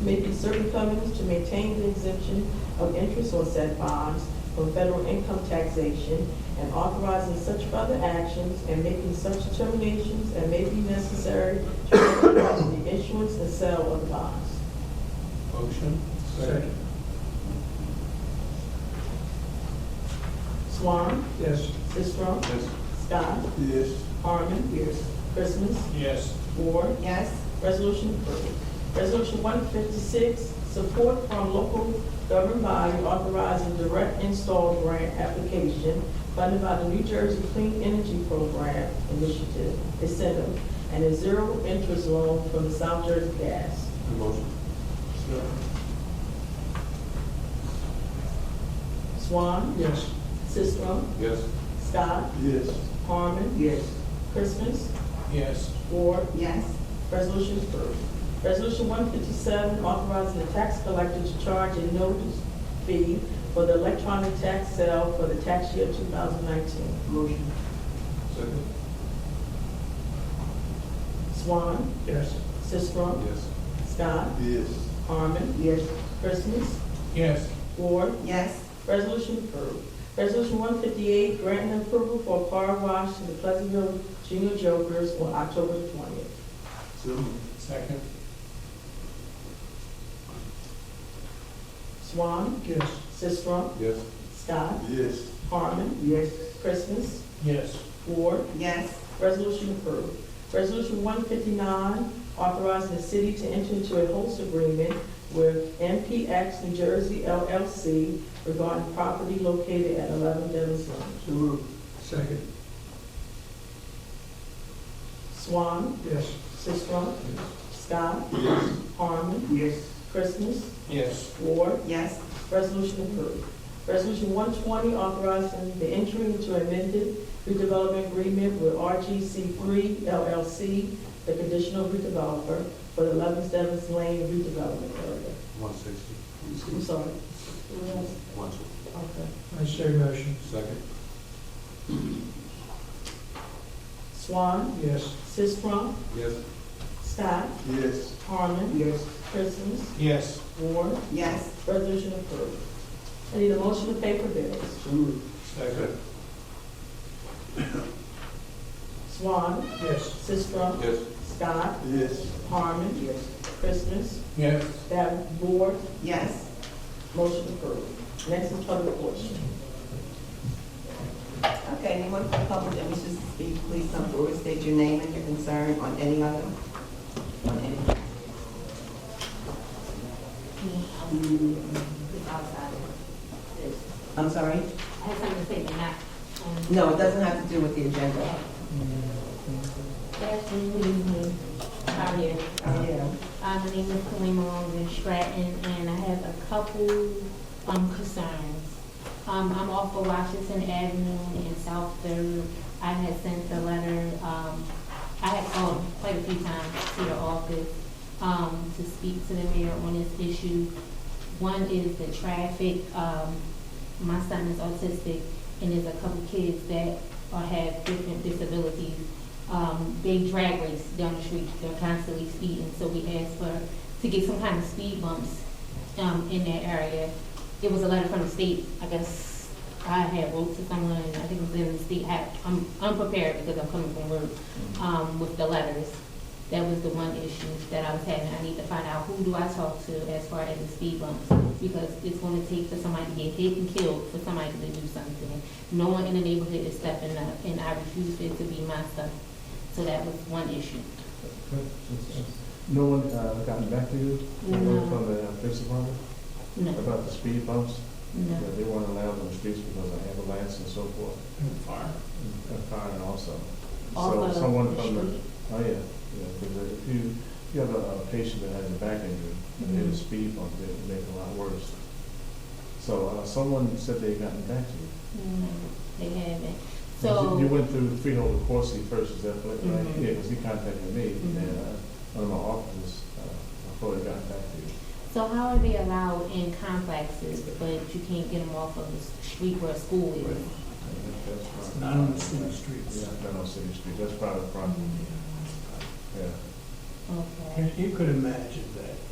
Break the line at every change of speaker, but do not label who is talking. may be certain covenants to maintain the exemption of interest on said bonds from federal income taxation and authorizing such further actions and making such determinations as may be necessary to authorize the issuance and sale of the bonds.
Motion?
Second.
Swan,
Yes.
Sisram,
Yes.
Scott,
Yes.
Harmon. Yes. Christmas,
Yes.
Ward.
yes,
Resolution approved. Resolution one fifty-six, support from local government body authorizing direct install grant application funded by the New Jersey Clean Energy Program Initiative, incentive, and a zero interest loan from the South Jersey Gas.
Motion?
Swan,
Yes.
Sisram,
Yes.
Scott,
Yes.
Harmon,
Yes.
Christmas,
Yes.
Ward,
yes,
Resolution approved. Resolution one fifty-seven, authorizing the tax collector to charge a notice fee for the electronic tax sale for the tax year two thousand nineteen.
Motion.
Second?
Swan,
Yes.
Sisram,
Yes.
Scott,
Yes.
Harmon,
Yes.
Christmas,
Yes.
Ward.
yes,
Resolution approved. Resolution one fifty-eight, granting approval for a car wash to the Pleasantville Junior Jokers on October twentieth.
So moved.
Second?
Swan,
Yes.
Sisram,
Yes.
Scott,
Yes.
Harmon,
Yes.
Christmas,
Yes.
Ward.
yes,
Resolution approved. Resolution one fifty-nine, authorizing the city to enter into a host agreement with MPX New Jersey LLC regarding property located at eleven Devon's Lane.
So moved. Second.
Swan,
Yes.
Sisram, Scott,
Yes.
Harmon,
Yes.
Christmas,
Yes.
Ward.
yes,
Resolution approved. Resolution one twenty, authorizing the entry into amended redevelopment agreement with RGC three LLC, the conditional redeveloper for the eleven Devon's Lane redevelopment area.
One sixty.
I'm sorry.
One sixty.
Okay.
I say motion.
Second?
Swan,
Yes.
Sisram,
Yes.
Scott,
Yes.
Harmon,
Yes.
Christmas,
Yes.
Ward,
yes,
resolution approved. I need a motion to pay for bills.
So moved.
Second?
Swan,
Yes.
Sisram,
Yes.
Scott,
Yes.
Harmon,
Yes.
Christmas,
Yes.
that board,
yes,
motion approved. Next is public portion.
Okay, anyone from the public that wishes to speak, please come forward, state your name and your concern on any item. On any.
outside. I
I'm sorry?
had something to say, but not. um,
No, it doesn't have to do with the agenda.
Yes, good evening. How are you?
Oh, yeah.
Uh, My name is Kalima Long in Stratton, and I have a couple um, concerns. Um, I'm off of Washington Avenue in South Third. I had sent the letter, um, I had called quite a few times to the office um, to speak to the mayor on this issue. One is the traffic. Um, My son is autistic, and there's a couple kids that are- have different disabilities um, they drag race down the street, they're constantly speeding, so we asked for, to get some kind of speed bumps, um, in that area. It was a letter from the state, I guess, I had wrote to someone, I think it was in the state, I, I'm unprepared because I'm coming from work, um, with the letters. That was the one issue that I was having, I need to find out who do I talk to as far as the speed bumps, because it's gonna take for somebody to get hit and killed, for somebody to do something. No one in the neighborhood is stepping up, and I refuse it to be my stuff so that was one issue.
No one uh, gotten back to you?
No.
From the uh, police department
No,
about the speed bumps?
no.
That They weren't allowed on the streets because of ambulance and so forth,
Fire.
and fire also.
Off
So
of
someone
the
from the,
street.
oh yeah, yeah, because if you, you have a a patient that has a back injury, and they have a
Mm-hmm.
Mhm.
speed bump, it would make it a lot worse. So uh, someone said they gotten back to you.
No, they haven't.
You- You
So,
went through Freehold and Corsi first, is that right? right?
Mhm.
Yeah, because he contacted me,
Mhm.
and uh, one of my officers, uh, I probably got back to you.
so how are they allowed in complexes, but you can't get them off of the street where a school is?
That's
Not on the city streets. Mm-hmm.
Yeah, not on City Street, that's part of the problem, yeah.
Okay.
You could imagine that